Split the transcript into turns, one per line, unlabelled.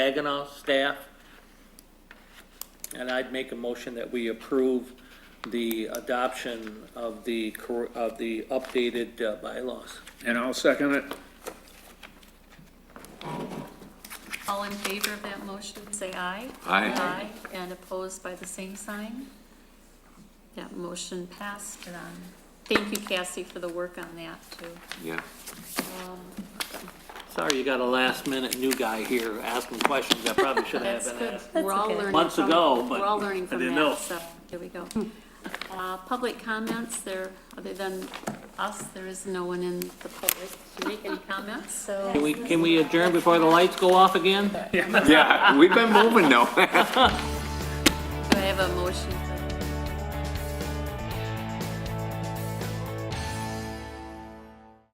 Saginaw staff. And I'd make a motion that we approve the adoption of the, cor- of the updated uh, bylaws.
And I'll second it.
All in favor of that motion, say aye.
Aye.
Aye, and opposed by the same sign. That motion passed, and um, thank you, Cassie, for the work on that, too.
Yeah.
Um,
Sorry, you got a last minute new guy here asking questions that probably should have
That's
been
good,
asked.
we're all learning.
Months
from-
ago, but
We're all
I
learning from
didn't know.
that, so, here we go. Uh, Public comments, there, other than us, there is no one in the public to make any comments, so.
Can we, can we adjourn before the lights go off again?
Yeah, we've been moving now.
Do I have a motion to